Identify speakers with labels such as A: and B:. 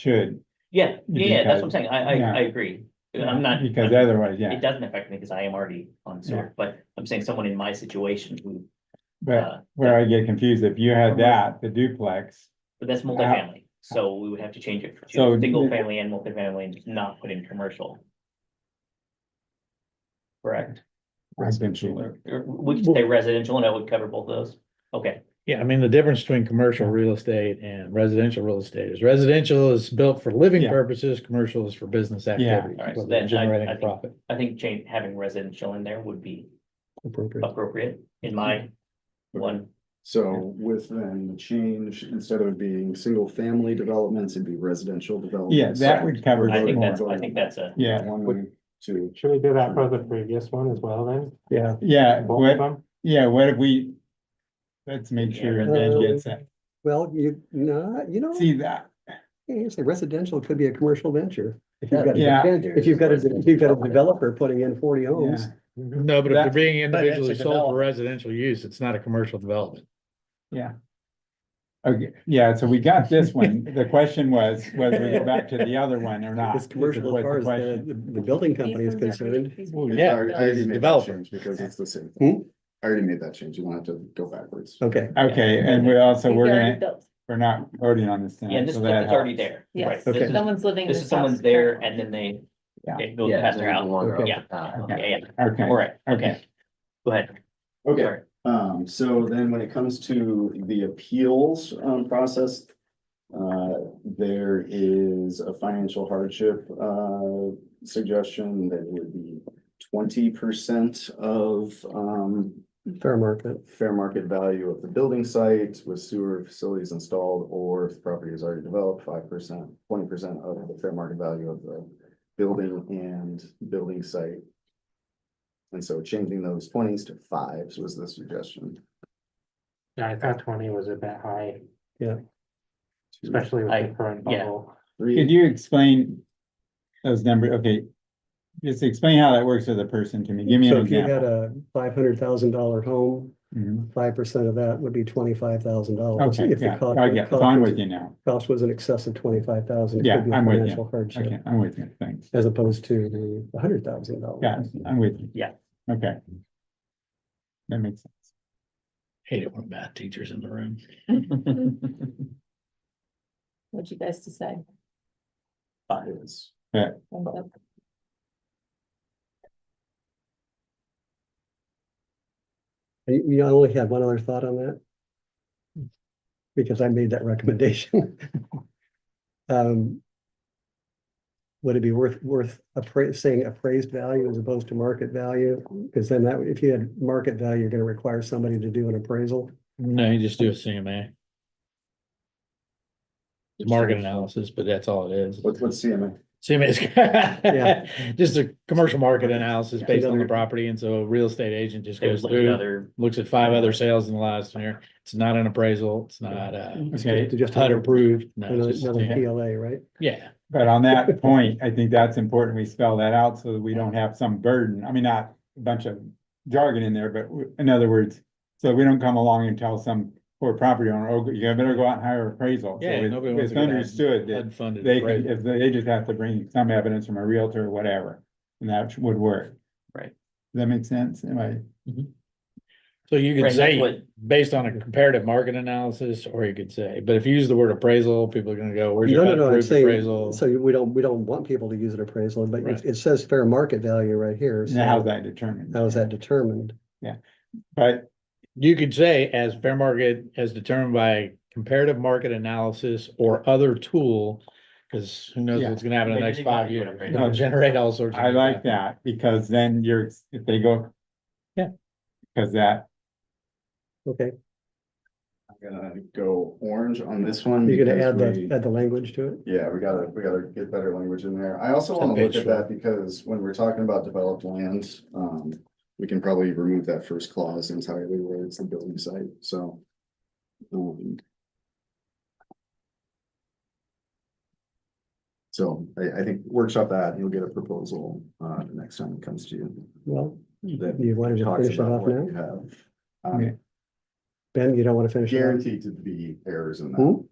A: should.
B: Yeah, yeah, yeah, that's what I'm
A: Because-
B: saying, I, I, I
A: yeah.
B: agree, I'm not.
A: Because otherwise,
B: It
A: yeah,
B: doesn't affect me, because I am already on sewer, but I'm saying someone in my situation who,
A: but
B: uh,
A: where I get confused, if you had that, the duplex,
B: but that's multifamily, so we would have to change it
A: So-
B: to single family and multifamily and just not put in commercial. Correct,
A: eventually.
B: Or- or we could say residential, and that would cover both of those, okay,
C: Yeah, I mean, the difference between commercial real estate and residential real estate is residential is built for living
A: Yeah.
C: purposes, commercial is for business activities.
B: Alright, so
C: whether
B: then I-
C: Generating
B: I
C: a
B: think-
C: profit
B: I think change, having residential in there would be
C: appropriate.
B: appropriate in my one,
D: So with then the change, instead of being single family developments, it'd be residential developments.
A: Yeah, that would cover
B: I
A: it
B: think that's,
A: more.
B: I think that's a,
A: Yeah,
D: One, two,
E: Should we do that for the previous one as well then?
C: Yeah.
A: yeah,
E: Both
A: what,
E: of them?
A: yeah, what if we? Let's make sure Dan gets that.
F: Well, you, no, you know,
A: See that,
F: it's a residential could be a commercial venture. If you've got,
A: yeah,
F: a- if you've got, a- if you've got a developer putting in forty
A: yeah,
F: homes,
C: No, but if they're
A: That-
C: being
A: but it's a
C: individually sold for
A: development.
C: residential use, it's not a commercial development.
A: yeah. Okay, yeah, so we got this one, the question was whether we go back to the other one or not.
F: it's commercial
A: was
F: as
A: the
F: far as the,
A: question.
F: the the building company is
G: These ones are pretty-
F: concerned.
G: these
C: Well,
G: ones-
C: yeah,
D: I already- I already
C: as a
D: made that
C: developer.
D: change Because it's the same.
F: Hmm?
D: I already made that change. You don't have to go backwards.
F: Okay,
A: Okay, and we also,
G: these
A: we're
G: are already
A: gonna,
G: built.
A: we're not voting on this
B: yeah,
A: tonight,
B: this
A: so
B: is
A: that
B: already
A: helps.
B: there.
G: Yes.
B: right,
F: Okay.
B: this is-
G: Someone's living.
B: This is
G: house
B: someone's
G: currently.
B: there and then they.
A: Yeah.
B: It goes past their house.
A: Okay.
B: Yeah, yeah, yeah,
A: Okay,
B: all right,
A: okay.
B: okay. Go ahead.
D: Okay,
B: Sorry.
D: Um, so then when it comes to the appeals, um, process, uh, there is a financial hardship, uh, suggestion that would be twenty percent of, um,
F: fair market.
D: fair market value of the building site with sewer facilities installed, or if the property is already developed, five percent, twenty percent of the fair market value of the building and building site. And so changing those twenties to fives was the suggestion.
E: Yeah, I thought twenty was a bit high,
D: to
E: especially with
B: Mm, I-
E: the current
B: yeah.
E: bubble.
A: Could
D: three.
A: you explain those number, okay? Just explain how that works with a person to me. Give me an
F: So if you had
A: example.
F: a five hundred thousand dollar home,
A: Mhm.
F: five percent of that would be twenty-five thousand dollars.
A: Okay, yeah, I get, I'm with you now.
F: Cost was in excess of twenty-five thousand.
A: Yeah, I'm with you. Okay,
F: Hardship
A: I'm with you, thanks.
F: as opposed to the hundred thousand dollars.
A: Yeah, I'm with you.
B: Yeah.
A: Okay. That makes sense.
C: Hate it when math teachers in the room.
G: What'd you guys decide?
D: Fives.
G: Thumbs up?
F: You, you only had one other thought on that? Because I made that recommendation. Um. Would it be worth, worth appra- saying appraised value as opposed to market value? Because then that, if you had market value, you're gonna require somebody to do an appraisal.
C: No, you just do a CMA. It's market analysis, but that's all it is.
D: What's, what's CMA?
C: CMA
F: Yeah.
C: is just a commercial market analysis based on the
F: Another-
C: property. And so a real estate agent just
B: There's
C: goes
B: like
C: through.
B: another,
C: looks at five other sales in the last year. It's not an appraisal. It's not a
A: Okay,
F: To just
C: HUD approved. No,
F: Another
C: it's just-
F: another
C: yeah.
F: PLA, right?
C: Yeah,
A: but on that point, I think that's important. We spell that out so that we don't have some burden. I mean, not a bunch of jargon in there, but w- in other words, so we don't come along and tell some poor property owner, oh, you better go out and hire appraisal. So
C: Yeah,
A: it-
C: nobody wants
A: It's
C: to go out and
A: understood that
C: HUD funded.
A: They can,
C: appraisal.
A: if they they just have to bring some evidence from a realtor or whatever, and that would work.
B: Right.
A: Does that make sense? Am I,
C: So you could
B: Right, that's
C: say,
B: what-
C: based on a comparative market analysis, or you could say, but if you use the word appraisal, people are gonna go, where's
F: No,
C: your
F: no,
C: HUD
F: no, I'm
C: approved
F: saying,
C: appraisal?
F: so we don't, we don't want people to use an appraisal, but it,
C: Right.
F: it says fair market value right here. so
A: now how's that determined?
F: How is that determined?
A: But,
C: You could say as fair market as determined by comparative market analysis or other tool. Cause who knows
A: Yeah.
C: what's gonna happen in the
B: Maybe
C: next
B: they
C: five
B: might do an
C: years,
B: appraisal.
C: It'll generate all sorts. of
A: I
C: new
A: like
C: stuff.
A: that, because then you're, if they go.
C: Yeah.
A: Cause that,
F: Okay,
D: I'm gonna go orange on this one.
F: you're gonna
D: because
F: add the,
D: we-
F: add the language to it?
D: Yeah, we gotta, we gotta get better language in there. I also
C: That
D: wanna look
C: page
D: at
C: one.
D: that because when we're talking about developed land, um, we can probably remove that first clause entirely where it's the building site, so. um, So I, I think workshop that, you'll get a proposal, uh, the next time it comes to you.
F: Well,
D: that
F: Hmm. you wanted to
D: talks
F: finish it
D: about
F: off
D: what
F: now?
D: you have. Um,
A: Okay.
F: Ben, you don't want to finish? it off?
D: Guaranteed to be errors in
F: Hmm?
D: that.